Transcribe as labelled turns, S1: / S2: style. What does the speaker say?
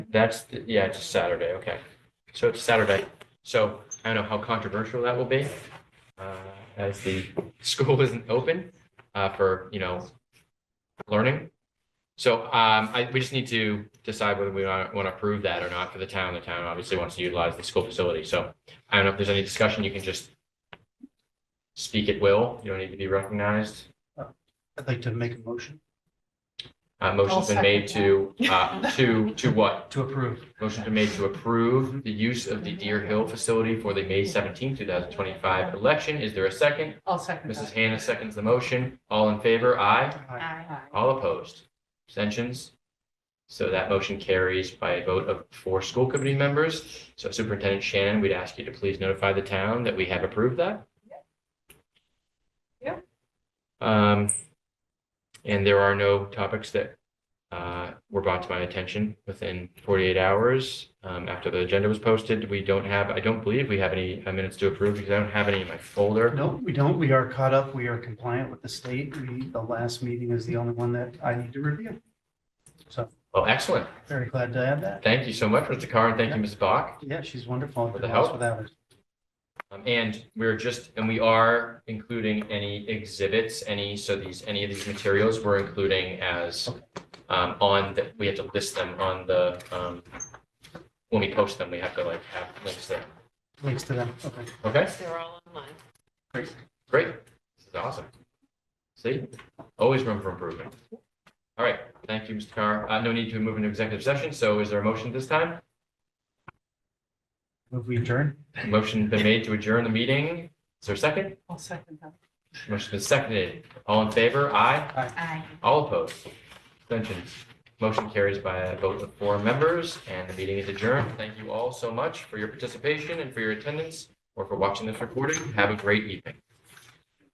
S1: That's, the- yeah, it's a Saturday, okay. So it's Saturday. So I don't know how controversial that will be uh, as the school isn't open uh, for, you know, learning. So um, I, we just need to decide whether we want to approve that or not for the town. The town obviously wants to utilize the school facility. So I don't know if there's any discussion, you can just speak at will. You don't need to be recognized.
S2: I'd like to make a motion
S1: Uh, Motion's been made to, uh, to, to what?
S2: to approve.
S1: Motion been made to approve the use of the Deer Hill facility for the May 17, thousand twenty-five election. Is there a second?
S3: I'll second
S1: Mrs.
S3: that.
S1: Hannah seconds the motion. All in favor? Aye.
S3: Aye.
S1: All opposed? Abstentions? So that motion carries by a vote of four school committee members. So Superintendent Shannon, we'd ask you to please notify the town that we have approved that.
S3: Yeah.
S1: Um, and there are no topics that uh, were brought to my attention within 48 hours um, after the agenda was posted. We don't have, I don't believe we have any uh, minutes to approve because I don't have any in my folder.
S2: No, we don't. We are caught up. We are compliant with the state. We, the last meeting is the only one that I need to review. So
S1: Well, excellent.
S2: very glad to add that.
S1: Thank you so much, Mr. Carr, and thank you, Ms. Bach.
S2: Yeah, she's wonderful.
S1: For the
S2: Lost
S1: help.
S2: Without her.
S1: Um, and we're just, and we are including any exhibits, any, so these, any of these materials we're including as um, on, the- we have to list them on the, um, when we post them, we have to like have links there.
S2: Links to them. Okay.
S1: Okay,
S3: They're all online.
S1: great. This is awesome. See, always room for improvement. All right, thank you, Mr. Carr. Uh, no need to move into executive session. So is there a motion this time?
S2: Move we adjourn.
S1: Motion been made to adjourn the meeting. Is there a second?
S3: I'll second that.
S1: Motion been seconded. All in favor? Aye.
S3: Aye.
S1: All opposed? Abstentions? Motion carries by a vote of four members, and the meeting is adjourned. Thank you all so much for your participation and for your attendance, or for watching this recording. Have a great evening.